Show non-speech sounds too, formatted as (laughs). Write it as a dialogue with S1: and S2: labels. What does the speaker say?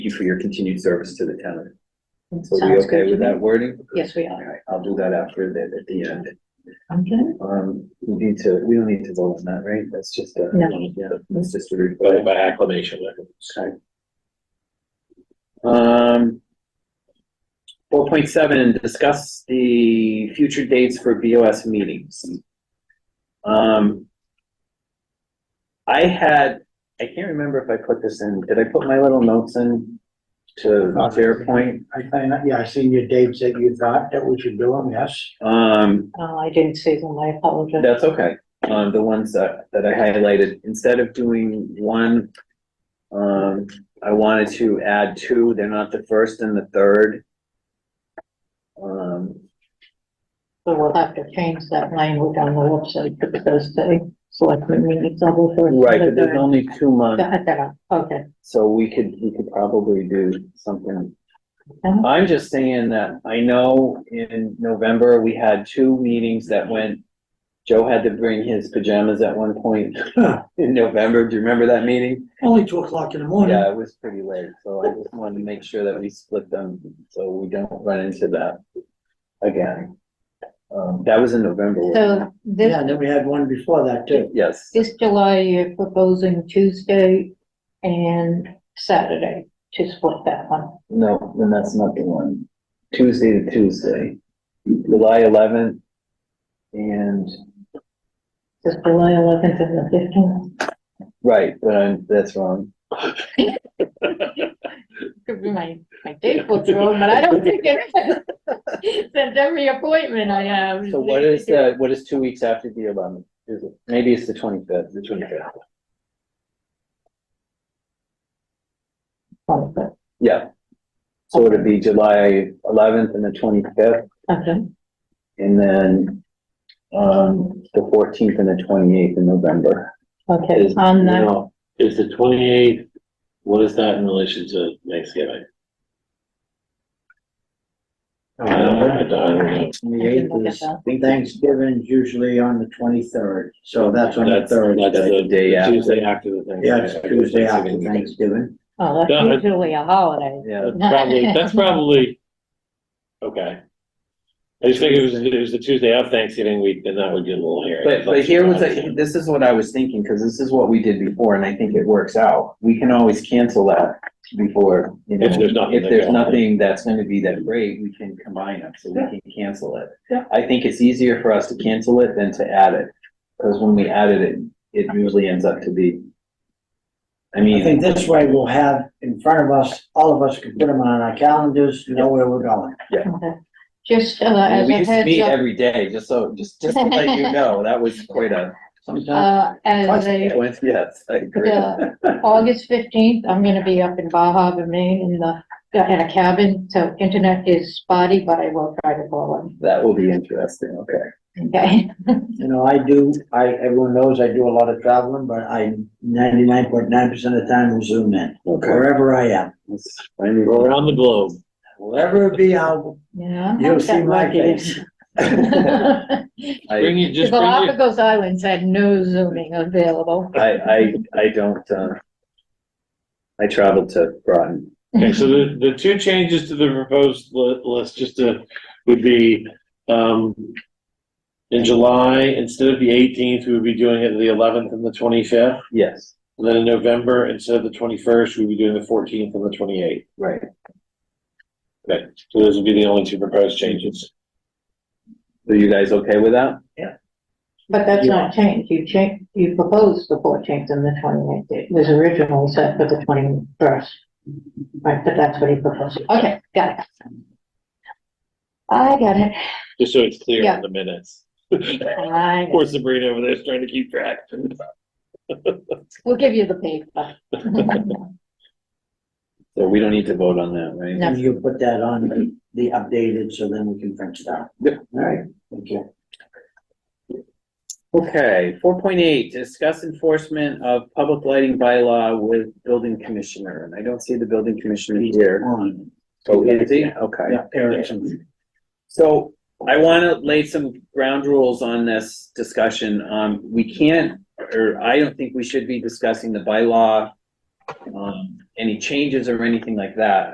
S1: you for your continued service to the town. So we
S2: Sounds
S1: okay
S2: good
S1: with
S2: to me.
S1: that wording?
S2: Yes, we
S1: All
S2: are.
S1: right, I'll do that after the, at the end.
S2: Okay.
S1: Um, we need to, we don't need to vote on that, right? That's just a,
S2: No.
S1: yeah, that's just a.
S3: by, by acclamation.
S1: Okay. Um. Four point seven, discuss the future dates for BOS meetings. Um. I had, I can't remember if I put this in, did I put my little notes in to SharePoint?
S4: I find, that- yeah, I seen your dates that you thought that we should do them, yes.
S1: Um.
S2: Uh, I didn't see them, I apologize.
S1: That's okay. Um, the ones that, that I highlighted, instead of doing one, um, I wanted to add two. They're not the first and the third. Um,
S2: So we'll have to change that language on the website because the selectmen meeting double for.
S1: right, but there's only two months,
S2: Got that, okay.
S1: so we could, we could probably do something.
S2: Okay.
S1: I'm just saying that I know in November, we had two meetings that went, Joe had to bring his pajamas at one point (laughs) in November. Do you remember that meeting?
S4: Only two o'clock in the morning.
S1: Yeah, it was pretty late, so I just wanted to make sure that we split them, so we don't run into that again. Um, that was in November. wasn't
S2: So
S4: Yeah,
S2: this,
S4: and then we had one before that
S1: it?
S4: too.
S1: Yes,
S2: this July, you're proposing Tuesday and Saturday to split that one.
S1: no, then that's not the one. Tuesday to Tuesday, July eleventh. And,
S2: Is July eleventh and the fifteenth?
S1: right, but I'm, that's wrong.
S2: Could be my, my date book's wrong, but
S1: (laughs)
S2: I don't think it is. Since every appointment I have.
S1: So what is the, what is two weeks after the eleventh? Is it, maybe it's the twenty-fifth, the twenty-fifth.
S2: Okay,
S1: Yeah. So it'd be July eleventh and the twenty-fifth. And then, um, the fourteenth and the twenty-eighth in November.
S2: okay, on the.
S3: Now, Is the twenty-eighth, what is that in relation to Thanksgiving? I don't, I don't- I don't know.
S4: Twenty-eighth
S2: look at
S4: is,
S2: that.
S4: Thanksgiving's usually on the twenty-third, so that's on the
S3: That's, that's
S4: third day.
S3: the
S1: Day after.
S3: Tuesday after the Thanksgiving.
S4: Yeah, it's Tuesday after
S3: Thanksgiving.
S4: Thanksgiving.
S2: Oh,
S3: Yeah, I-
S2: that's usually a holiday.
S1: Yeah,
S3: That's probably, that's probably, okay. I just think it was, it was the Tuesday of Thanksgiving week, then that would get a little hairy.
S1: but, but here was, a- this is what I was thinking, because this is what we did before, and I think it works out. We can always cancel that before, you know.
S3: If there's nothing
S1: If
S3: that
S1: there's
S3: goes on.
S1: nothing that's gonna be that great, we can combine them, so we can cancel it.
S4: Yeah.
S1: I think it's easier for us to cancel it than to add it, because when we added it, it usually ends up to be. I
S4: I
S1: mean,
S4: think this way we'll have in front of us, all of us can put them on our calendars, know where we're going.
S2: Okay. Just uh, as
S1: we
S2: a
S1: used to
S2: heads
S1: meet
S2: up,
S1: every day, just so, just, just to let you know, that was quite a.
S4: Sometimes,
S2: uh, as a,
S1: Yes, I agree.
S2: the August fifteenth, I'm gonna be up in Bar Harbor, Maine in the, in a cabin, so internet is spotty, but I will try to call
S1: That will be interesting, okay.
S2: in, okay?
S4: you know, I do, I, everyone knows I do a lot of traveling, but I ninety-nine point nine percent of the time will zoom in, wherever I am.
S1: Let's finally
S3: We're (laughs)
S1: roll
S3: Around the globe.
S4: Wherever it be, I'll,
S2: Yeah. I'm not
S4: you'll see
S2: that
S4: my
S2: lucky. (laughs)
S4: face.
S1: out. I,
S3: Bring it,
S2: The
S3: just bring it.
S2: Galapagos Islands had no zooming available.
S1: I, I, I don't, uh, I traveled to Groton.
S3: Okay, so the, the two changes to the proposed li- list, just to, would be, um, in July, instead of the eighteenth, we would be doing it the eleventh and the twenty-fifth.
S1: Yes,
S3: And then in November, instead of the twenty-first, we'd be doing the fourteenth and the twenty-eighth.
S1: right.
S3: Okay, so those would be the only two proposed changes.
S1: Are you guys okay with that?
S2: But that's not changed. You changed, you proposed the fourteenth and the twenty-eighth. It was originally set for the twenty-first. Right, but that's what he proposed. Okay, got it. I got it.
S3: Just so it's clear
S2: Yeah.
S3: in the minutes.
S2: I got it.
S3: (laughs) Poor Sabrina over there is trying to keep track.
S2: We'll give you the paper. (laughs)
S1: So we don't need to vote on that, right?
S2: No.
S4: And you put that on the updated, so then we can print it out.
S1: Yep.
S4: All right, thank you.
S1: Okay, four point eight, discuss enforcement of public lighting bylaw with building commissioner, and I don't see the building commissioner here.
S4: Um,
S1: Oh, is he? Okay.
S4: Yeah, Erickson.
S1: So I want to lay some ground rules on this discussion. Um, we can't, or I don't think we should be discussing the bylaw um, any changes or anything like that.